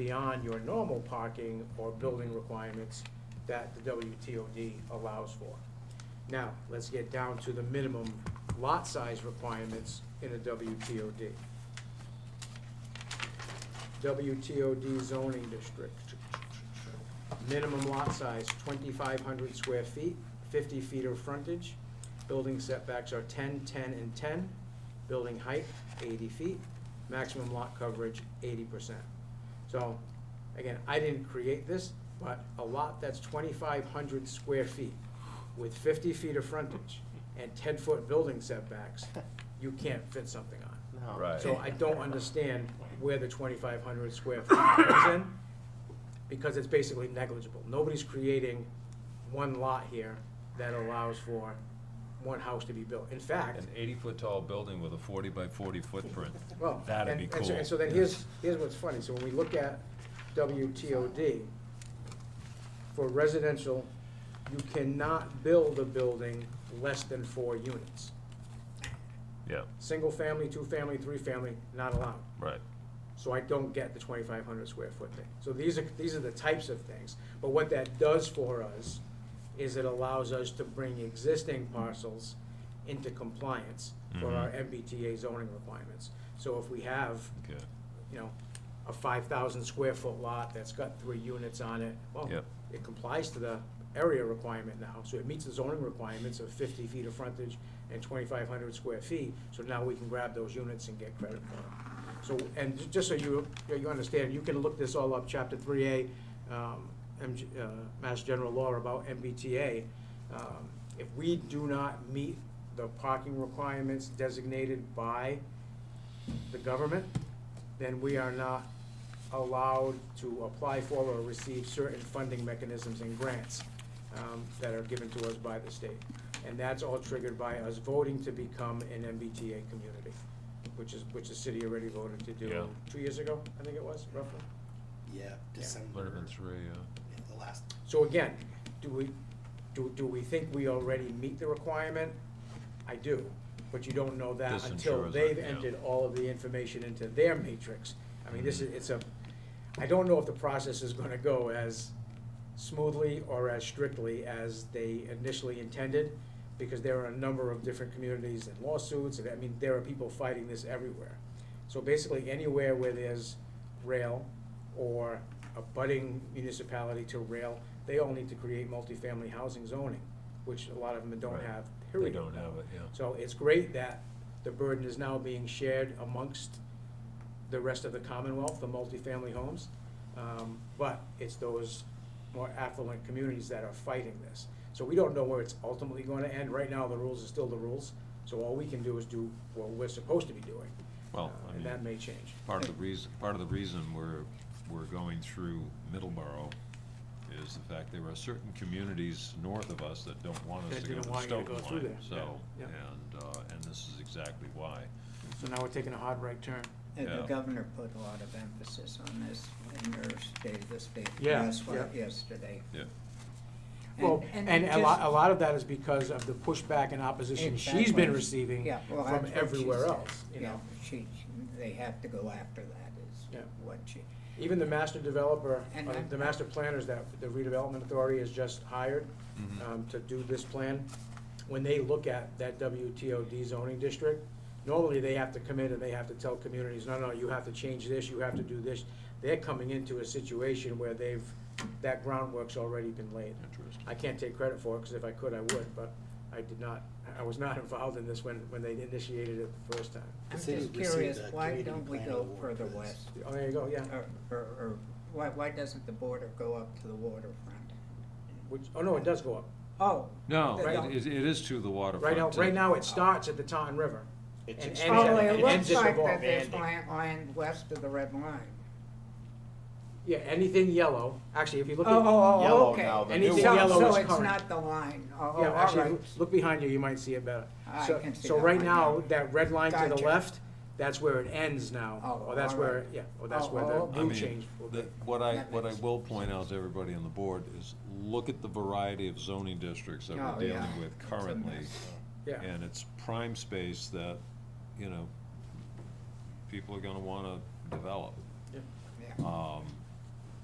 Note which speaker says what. Speaker 1: beyond your normal parking or building requirements that the WTOD allows for. Now, let's get down to the minimum lot size requirements in a WTOD. WTOD zoning district. Minimum lot size, twenty-five hundred square feet, fifty feet of frontage. Building setbacks are 10, 10, and ten. Building height, eighty feet. Maximum lot coverage, eighty percent. So, again, I didn't create this, but a lot that's twenty-five hundred square feet with fifty feet of frontage and ten-foot building setbacks, you can't fit something on.
Speaker 2: No.
Speaker 3: Right.
Speaker 1: So I don't understand where the twenty-five hundred square feet comes in, because it's basically negligible. Nobody's creating one lot here that allows for one house to be built. In fact,
Speaker 3: An eighty-foot tall building with a forty by forty footprint.
Speaker 1: well,
Speaker 3: That'd
Speaker 1: and-
Speaker 3: be
Speaker 1: and so-
Speaker 3: cool.
Speaker 1: And so then here's, here's what's funny, so when we look at WTOD, for residential, you cannot build a building less than four units.
Speaker 3: Yeah,
Speaker 1: Single-family, two-family, three-family, not allowed.
Speaker 3: right.
Speaker 1: So I don't get the twenty-five hundred square foot thing. So these are, these are the types of things. But what that does for us is it allows us to bring existing parcels into compliance for our MBTA zoning requirements. So if we have,
Speaker 3: Okay.
Speaker 1: you know, a five thousand square foot lot that's got three units on it, well,
Speaker 3: Yep.
Speaker 1: it complies to the area requirement now. So it meets the zoning requirements of fifty feet of frontage and twenty-five hundred square feet, so now we can grab those units and get credit for them. So, and ju- just so you, you understand, you can look this all up, chapter three A, um, MG, uh, Mass General Law about MBTA. Um, If we do not meet the parking requirements designated by the government, then we are not allowed to apply for or receive certain funding mechanisms and grants um, that are given to us by the state. And that's all triggered by us voting to become an MBTA community, which is, which the city already voted to do
Speaker 3: Yeah.
Speaker 1: two years ago, I think it was, roughly.
Speaker 2: Yeah,
Speaker 3: Would have
Speaker 2: December,
Speaker 3: been three, uh, yeah.
Speaker 2: yeah, the last,
Speaker 1: So again, do we, do, do we think we already meet the requirement? I do, but you don't know that
Speaker 3: This
Speaker 1: until
Speaker 3: ensures
Speaker 1: they've
Speaker 3: that, yeah.
Speaker 1: entered all of the information into their matrix. I mean, this is, it's a, I don't know if the process is gonna go as smoothly or as strictly as they initially intended, because there are a number of different communities and lawsuits, and I mean, there are people fighting this everywhere. So basically, anywhere where there's rail or a budding municipality to rail, they all need to create multifamily housing zoning, which a lot of them don't
Speaker 3: Right.
Speaker 1: have,
Speaker 3: They
Speaker 1: period.
Speaker 3: don't have it, yeah.
Speaker 1: So it's great that the burden is now being shared amongst the rest of the Commonwealth, the multifamily homes. Um, But it's those more affluent communities that are fighting this. So we don't know where it's ultimately going to end. Right now, the rules are still the rules. So all we can do is do what we're supposed to be doing.
Speaker 3: Well,
Speaker 1: Uh,
Speaker 3: I
Speaker 1: And that
Speaker 3: mean,
Speaker 1: may change.
Speaker 3: part of the reason, part of the reason we're, we're going through Middleborough is the fact there are certain communities north of us that don't want
Speaker 1: That
Speaker 3: us to go to
Speaker 1: didn't
Speaker 3: the
Speaker 1: want you to
Speaker 3: Stoughton
Speaker 1: go through
Speaker 3: line,
Speaker 1: there,
Speaker 3: so,
Speaker 1: yeah,
Speaker 3: and, uh, and this is exactly why.
Speaker 1: So now we're taking a hard right turn.
Speaker 4: And
Speaker 3: Yeah.
Speaker 4: the governor put a lot of emphasis on this in her state of the state
Speaker 1: Yeah,
Speaker 4: press wa-
Speaker 1: yeah.
Speaker 4: yesterday.
Speaker 3: Yeah,
Speaker 1: Well, and
Speaker 4: it
Speaker 1: a lot,
Speaker 4: just-
Speaker 1: a lot of that is because of the pushback and opposition she's
Speaker 4: Exactly.
Speaker 1: been receiving
Speaker 4: Yeah, well,
Speaker 1: from
Speaker 4: that's what she
Speaker 1: everywhere
Speaker 4: said.
Speaker 1: else, you
Speaker 4: Yeah,
Speaker 1: know?
Speaker 4: she, they have to go after that is
Speaker 1: Yeah.
Speaker 4: what she,
Speaker 1: Even the master developer,
Speaker 4: And
Speaker 1: uh,
Speaker 4: I'm-
Speaker 1: the master planners that the redevelopment authority has just hired um, to do this plan, when they look at that WTOD zoning district, normally they have to come in and they have to tell communities, no, no, you have to change this, you have to do this. They're coming into a situation where they've, that groundwork's already been laid.
Speaker 3: interesting.
Speaker 1: I can't take credit for it, because if I could, I would, but I did not, I was not involved in this when, when they initiated it the first time.
Speaker 4: I'm
Speaker 2: city
Speaker 4: just
Speaker 2: received
Speaker 4: curious,
Speaker 2: a
Speaker 4: why
Speaker 2: community
Speaker 4: don't we
Speaker 2: plan
Speaker 4: go
Speaker 2: award
Speaker 4: further
Speaker 2: for this.
Speaker 4: west?
Speaker 1: Oh, there you go, yeah.
Speaker 4: Or, or, or why, why doesn't the border go up to the waterfront?
Speaker 1: Which, oh, no, it does go up.
Speaker 4: Oh.
Speaker 3: No,
Speaker 4: they don't.
Speaker 3: it, it it is to the waterfront.
Speaker 1: Right now,
Speaker 3: uh,
Speaker 1: right now, it starts at the Taunton River. and
Speaker 2: It's
Speaker 1: ends
Speaker 2: extended.
Speaker 1: at-
Speaker 4: Oh,
Speaker 2: and
Speaker 4: it
Speaker 1: ends at
Speaker 4: looks
Speaker 1: the
Speaker 4: like
Speaker 1: Vol-
Speaker 4: that there's
Speaker 2: Banding.
Speaker 4: land, land west of the red line.
Speaker 1: Yeah, anything yellow, actually, if you
Speaker 4: Oh,
Speaker 1: look at,
Speaker 4: oh,
Speaker 2: Yellow
Speaker 4: oh, okay.
Speaker 2: now, the
Speaker 1: Anything new
Speaker 4: So-
Speaker 1: one. yellow is
Speaker 4: So it's
Speaker 1: current.
Speaker 4: not the line, oh, all
Speaker 1: yeah, actually,
Speaker 4: right.
Speaker 1: look behind you, you might see it better.
Speaker 4: I
Speaker 1: So-
Speaker 4: can see
Speaker 1: So
Speaker 4: that
Speaker 1: right
Speaker 4: right
Speaker 1: now,
Speaker 4: now.
Speaker 1: that red line to the
Speaker 4: Gotcha.
Speaker 1: left, that's where it ends now,
Speaker 4: Oh,
Speaker 1: or that's
Speaker 4: all
Speaker 1: where,
Speaker 4: right.
Speaker 1: yeah, or that's
Speaker 4: Oh,
Speaker 1: where
Speaker 4: oh,
Speaker 1: the
Speaker 4: okay.
Speaker 3: I
Speaker 1: blue
Speaker 3: mean,
Speaker 1: change will be.
Speaker 3: the- what I,
Speaker 4: That
Speaker 3: what I
Speaker 4: makes
Speaker 3: will point out to everybody on the board is, look at the variety of zoning districts that
Speaker 4: Oh,
Speaker 3: we're
Speaker 4: yeah.
Speaker 3: dealing with
Speaker 4: It's a
Speaker 3: currently.
Speaker 4: mess.
Speaker 1: Yeah,
Speaker 3: And it's prime space that, you know, people are gonna wanna develop.
Speaker 1: yeah.
Speaker 4: Yeah.
Speaker 3: Um,